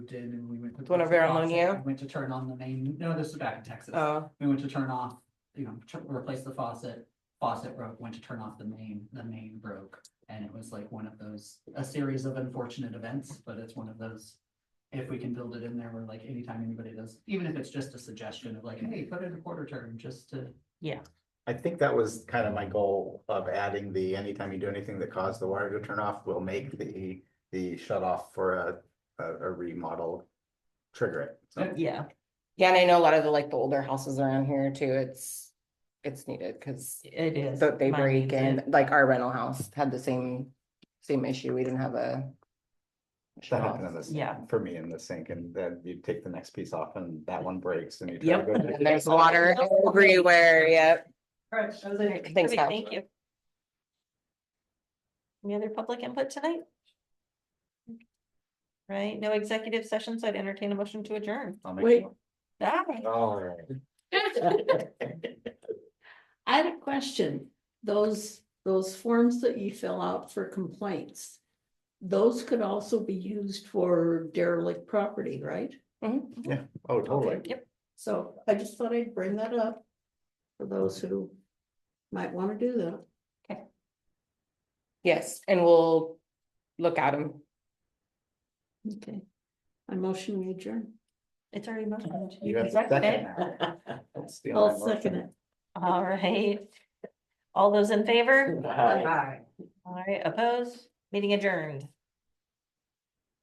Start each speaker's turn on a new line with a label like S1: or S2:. S1: did and we went. to
S2: One of
S1: close the
S2: our
S1: faucet,
S2: ammonia?
S1: we Went to turn on the main, no, this is back in Texas.
S2: Uh,
S1: We went to turn off, you know, tur- replace the faucet, faucet broke, went to turn off the main, the main broke. And it was like one of those, a series of unfortunate events, but it's one of those. If we can build it in there, where like anytime anybody does, even if it's just a suggestion of like, hey, put in a quarter turn just to.
S3: I think that was kind of my goal of adding the, anytime you do anything that caused the water to turn off, we'll make the, the shut off for a, a, a remodel. Trigger it. So,
S2: yeah. Yeah, and I know a lot of the, like, the older houses around here too, it's, it's needed, cause
S4: It is.
S2: th- they
S4: Mine
S2: break
S4: needs
S2: and
S4: it.
S2: like our rental house had the same, same issue. We didn't have a.
S3: That happened in this,
S4: Yeah.
S3: for me in the sink and then you take the next piece off and that one breaks and you. try to
S4: Yep.
S3: go to-
S2: And there's water everywhere, yep.
S1: Right, I was
S2: like- Thanks,
S4: Great,
S2: Cal.
S4: Thank you. Any other public input tonight? Right, no executive session, so I'd entertain a motion to adjourn.
S3: I'll make
S5: Wait.
S3: sure.
S4: Ah,
S3: All right.
S5: I had a question. Those, those forms that you fill out for complaints. Those could also be used for derelict property, right?
S4: Mm-hmm.
S3: Yeah, oh, totally.
S4: Yep,
S5: So I just thought I'd bring that up. For those who might want to do that.
S2: Yes, and we'll look at them.
S5: Okay. I motion we adjourn.
S4: it's already motioned.
S3: You have a
S4: Second
S3: second
S4: it.
S3: now. That's the
S5: I'll
S3: only
S5: second it.
S4: All right. All those in favor?
S3: motion. Aye.
S4: All right, opposed, meeting adjourned.